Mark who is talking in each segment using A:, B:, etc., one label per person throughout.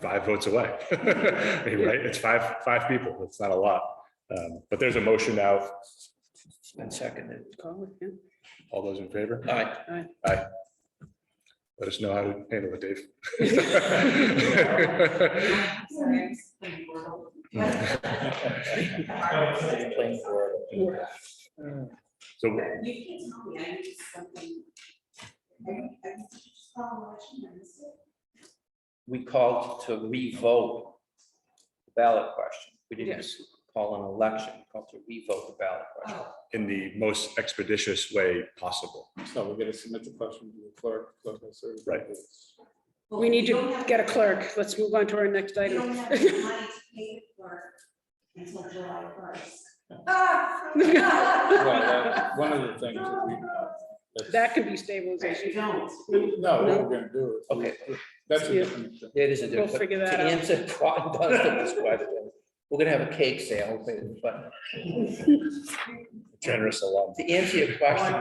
A: five votes away. I mean, Right? It's five, five people. It's not a lot. Um, But there's a motion out.
B: And seconded.
A: All those in favor,
B: All right,
A: let us know how to handle it, Dave.
B: playing for
A: So
C: You can tell me, I need something. I- I just follow what you know, that's it.
B: we called to revote the ballot question. We didn't
D: Yes.
B: call an election, we called to revote the ballot question.
C: Oh,
A: in the most expeditious way possible.
E: So we're gonna submit the question to the clerk. clerk will serve.
A: Right.
C: well,
D: We need
C: you don't
D: to
C: have-
D: get a clerk. Let's move on to our next
C: You
D: item.
C: don't have the money to pay for until July first. Ah!
E: Well, that's One of the things that we. that's-
D: That can be
C: Right,
D: stabilization.
C: you don't.
E: No, what we're gonna do is.
B: Okay.
E: That's a
D: Yeah.
E: different. thing.
B: It is a
D: Uh, We'll
B: different.
D: figure that
B: To
D: out.
B: answer Quan Dunstan's question, we're gonna have a cake sale, but
A: Generous alum.
B: to answer your question,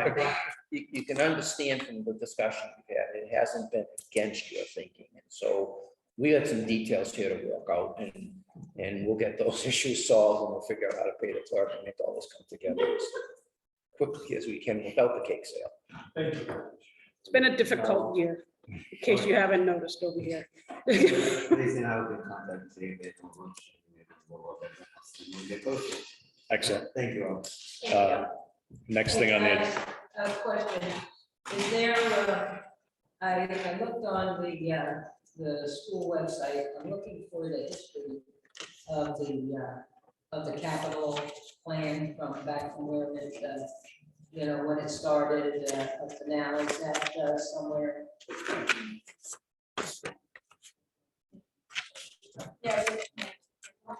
B: you, you can understand from the discussion we've had, it hasn't been against your thinking. And so we got some details here to work out and, and we'll get those issues solved and we'll figure out how to pay the clerk and make all this come together as quickly as we can without the cake sale.
E: Thank you.
D: It's been a difficult year, in case you haven't noticed over here.
F: Please, I will be contacting the convention.
A: Excellent.
F: Thank you all.
A: Uh, Next thing on the,
G: A question, is there, uh, I, I looked on the, uh, the school website, I'm looking for the history of the, uh, of the capital plan from back from where it, uh, you know, when it started, uh, up to now, is that uh, somewhere?
C: Yeah. uh,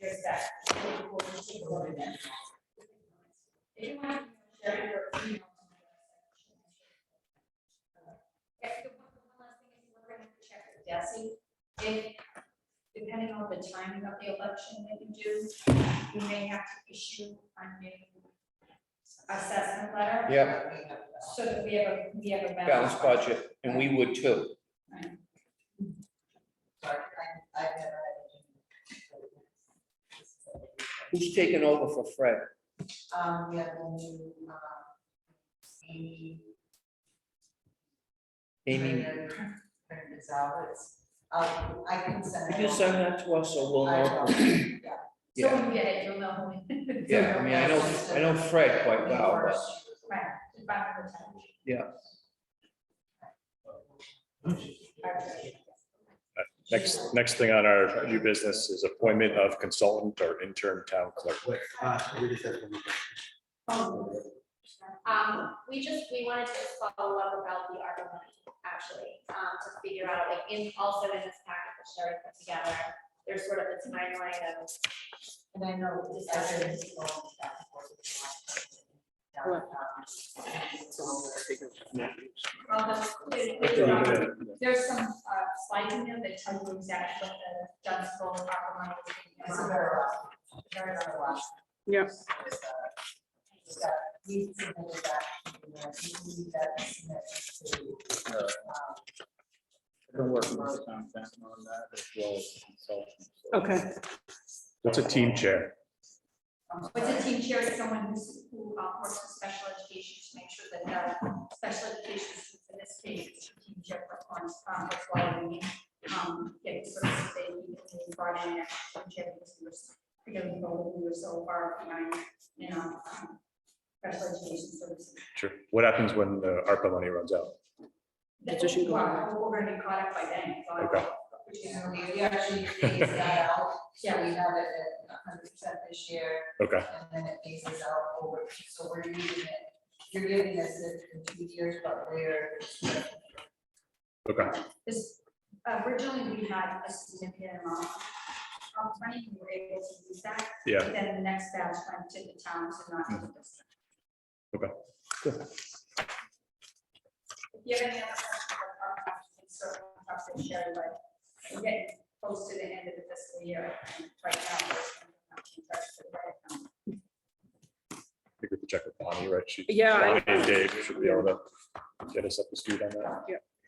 C: There's that. If you want to share your email.
G: Yeah, the one one last thing is we're gonna check with Desi, if, depending on the timing of the election that you do, you may have to issue a new assessment letter.
B: Yeah.
G: So that we have a, we have a balance.
B: Balanced budget, and we would too.
G: Sorry, I, I've never had it.
B: Who's taking over for Fred?
G: Um, we have one new, um, Amy.
B: Amy,
G: Brennan- Brennan Gonzalez. Um, I can send.
B: could you
G: along.
B: send that to us so we'll
G: I
B: know?
G: will, yeah.
B: Yeah.
G: So when we get it, you'll know. who-
B: Yeah, I mean, I know, I know Fred quite well, but
G: Right, it's back of the time.
B: Yeah.
G: Okay.
A: next, next thing on our new business is appointment of consultant or intern town clerk.
F: Wait, uh, we just have one more question.
H: Um, we just, we wanted to just follow up about the ARPA money, actually, um, to figure out, like, in, also in this packet that Sherry put together, there's sort of a timeline of,
G: And I know this other is going back and forth. with the last one.
H: although there's, um, there's some, uh, slides in there that tell you exactly what the Dunstable ARPA money is.
G: It's a very last, one. very very last. one.
D: Yeah.
G: So it's, uh, it's got- We submitted that, you know, we need that submitted to, um,
E: I've been working with Tom Fenton on that as well as consultants.
D: Okay.
A: What's a team chair?
G: um,
H: What's a team chair is someone who's, who uh, works with special education to make sure that the special education, students, in this case, it's a team chair performs, um, that's why we need, um, get sort of, they need to be brought in, as team chair, because we were, because we were- we were so far behind, you know, um, special education services.
A: Sure. What happens when the ARPA money runs out?
D: Position going
H: Well, We're gonna be caught up by then, so.
A: Okay.
H: Which is-
G: Yeah, we, we actually phase that out, so we have it at hundred percent this year,
A: Okay,
G: and then it phases out over, so we're using it. You're giving us it in two years, but we're.
A: okay.
H: This, originally, we had a significant amount of money, we were able to use that.
A: Yeah,
H: Then the next batch went to the towns and not to the district.
A: Okay,
H: If you have any other questions about our contract, you can certainly talk to Sherry, but we're getting close to the end of the fiscal year, and right now. we're-
A: I think we could check with Bonnie, right? She-
D: Yeah, I-
A: Bonnie and Dave should be able to get us up to speed on that.
D: Yeah.